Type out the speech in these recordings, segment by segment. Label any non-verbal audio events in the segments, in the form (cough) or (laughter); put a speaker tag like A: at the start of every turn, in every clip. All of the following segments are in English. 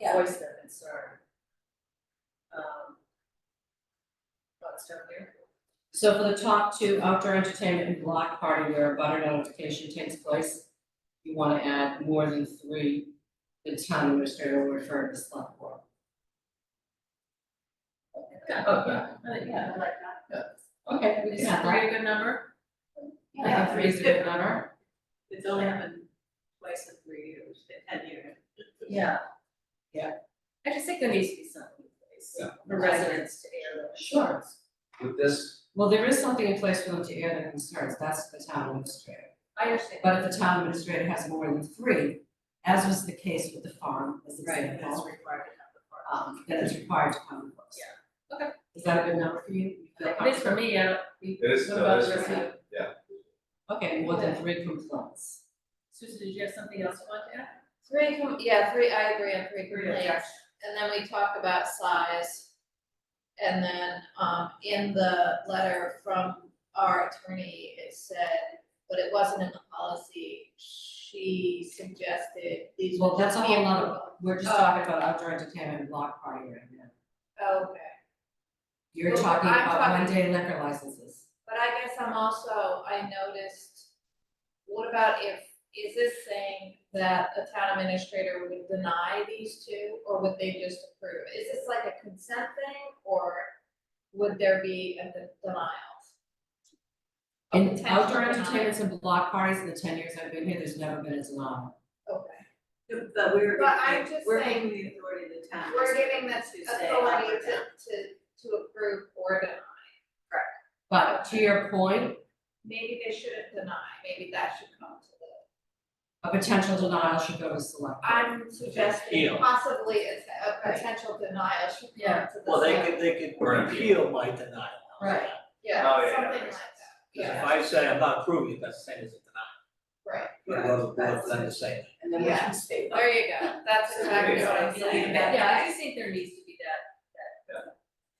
A: Yeah.
B: voice their concern. Um. What's down here?
C: So for the top two, outdoor entertainment and block party where a butter notification takes place, you wanna add more than three, the town administrator will refer to the select board.
B: Yeah,
D: Oh, yeah.
B: I think- Uh, yeah, I like that.
C: Okay, we
B: Is
C: can add that.
B: three a good number?
C: I think three is a good number.
D: It's only happened twice in three years, in ten years.
B: Yeah.
C: Yeah.
B: I just think there needs to be something in place
D: Yeah.
B: for residents to air their.
C: Sure.
D: With this,
C: Well, there is something in place for them to air their concerns, that's the town administrator.
B: I understand.
C: But if the town administrator has more than three, as was the case with the farm, as
B: Right, Uh, and it's
C: example,
B: required to have the park.
C: um, then it's required to come to us.
B: Yeah. Okay.
C: Is that a good number for you? You feel
B: At least for me, I don't.
D: It is- uh,
B: What
D: no,
B: about
D: it is
B: the
D: for
B: rest of
D: me.
B: you?
C: comfortable? Okay, more than three complaints.
B: Susan, did you have something else you wanted to add?
A: Three, com- yeah, three, I agree on three
B: Three
A: complaints. And then we talk about size. And then, um, in the letter from our attorney, it said, but it wasn't in the policy. She suggested these
C: Well,
A: would
C: that's
A: just
C: a
A: be
C: whole
A: in-
C: nother- We're just talking about outdoor entertainment and block party right now.
A: Okay,
C: You're
A: Well,
C: talking
A: I'm
C: about
A: talking-
C: one day liquor licenses.
A: but I guess I'm also, I noticed, what about if, is this saying that a town administrator would deny these two, or would they just approve? Is this like a consent thing, or would there be a de- denial? A
C: In
A: potential
C: outdoor
A: denial?
C: entertainments and block parties, in the ten years I've been here, there's never been a denial.
A: Okay.
D: The- the- we're
A: But
D: giving-
A: I'm just
D: We're
A: saying-
D: giving the authority of the town.
A: We're giving the
D: to say up
A: authority
D: or
A: to,
D: down.
A: to, to approve or deny.
C: But to your point,
A: Maybe they shouldn't deny, maybe that should come to the,
C: a potential denial should go to select. board.
A: I'm suggesting
E: Appeal.
A: possibly a, a potential denial should come
B: Yeah.
A: to the.
E: Well, they
A: select-
E: could, they
D: Or
E: could
D: an
E: appeal my denial.
C: Right.
D: Oh,
A: Yeah,
D: yeah,
A: something
D: yeah.
A: like that,
E: Because
A: yeah,
E: if I say I'm not approving it, that's the same as a denial.
A: right,
E: You go to the board for them to say that.
D: And then we
A: Yeah.
D: can state that.
A: there you go, that's
D: So
A: exactly
D: it's
A: what I'm
D: like, you
A: saying.
D: leave that
B: Yeah, I just think there needs to be that,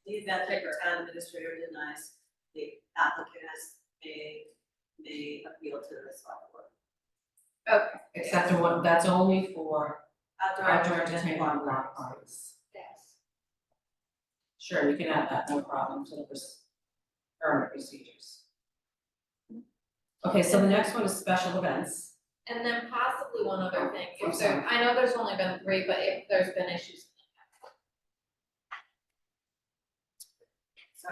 D: Leave that to the town administrator denies, the applicant has may, may appeal to the select board.
C: Except the one, that's only for
D: Outdoor
C: outdoor
D: entertainment.
C: entertainment and block parties.
A: Yes.
C: Sure, you can add that, no problem, to the pers- current procedures. Okay, so the next one is special events.
A: And then possibly one other thing,
C: I'm
A: if there, I know there's only been three, but if there's been issues. So,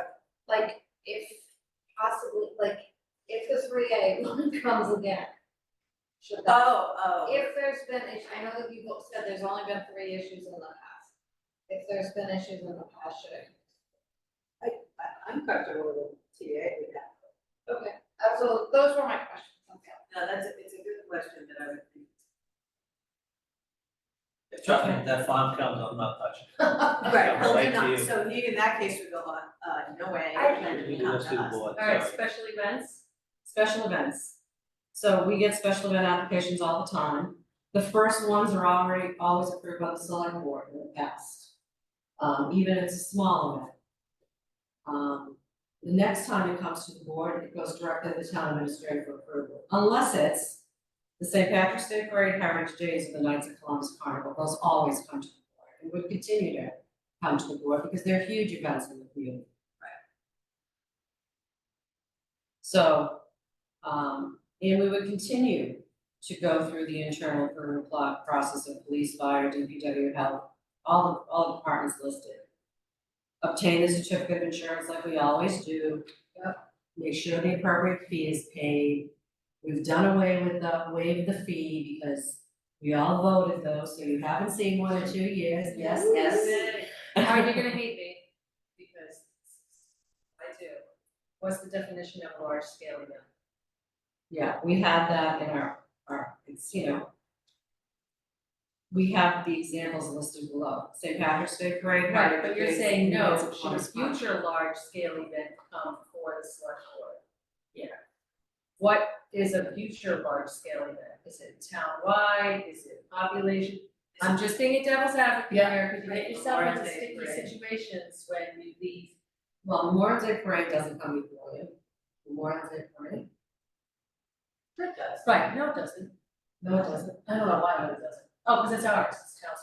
A: like, if possibly, like, if the three A (laughs) one comes again. Should that,
D: Oh, oh,
A: if there's been, issues, I know that you both said there's only been three issues in the past. If there's been issues in the past, should it?
D: I- I'm comfortable with TA with that.
A: Okay. Uh, so those were my questions, okay.
D: No, that's, a- it's a good question that I would think.
E: Trust me, if that farm comes, I'm not touching. it.
D: Right,
E: I'll
D: only
E: wait till
D: not,
E: you-
D: so he, in that case, would go on, uh, no way,
A: I-
D: you can't
E: You
D: come
E: just do
D: to
E: the
D: us.
E: board,
B: all right,
E: sorry.
B: special events,
C: Special events. So we get special event applications all the time. The first ones are already always approved by the select board in the past. Um, even if it's a small event. Um, the next time it comes to the board, it goes directly to the town administrator for approval, unless it's the St. Patrick's Day Parade, Heritage Days, or the Knights of Columbus Carnival, those always come to the board and would continue to come to the board because they're huge events in the community. Right. So um, and we would continue to go through the internal permit plot process of police, fire, DPW, health, all, the all the departments listed. Obtain the certificate of insurance like we always do. Make sure the appropriate fee is paid. We've done away with the waive the fee because we all voted those, so you haven't seen one in two years, yes, yes.
B: all right, you're (laughs) gonna hate me, because I do. What's the definition of large scale event?
C: (laughs) Yeah, we have that in our, our, it's, you know. We have the examples listed below, St. Patrick's Day Parade.
B: Right, but you're
C: Holiday Parade,
B: saying no,
C: Knights of
B: should a
C: Columbus Park.
B: future large scale event come for the select board? Yeah. What is a future large scale event? Is it townwide? Is it population? I'm just being a devil's advocate
C: Yeah.
B: here, because you get yourself
D: Memorial
B: into
D: Day
B: sticky
D: parade.
B: situations when you leave.
C: Well, Memorial Day Parade doesn't come before you, Memorial Day Parade,
B: That does. Right, no, it doesn't.
C: no, it doesn't.
B: I don't know why, but it doesn't. Oh, because it's ours, it's town's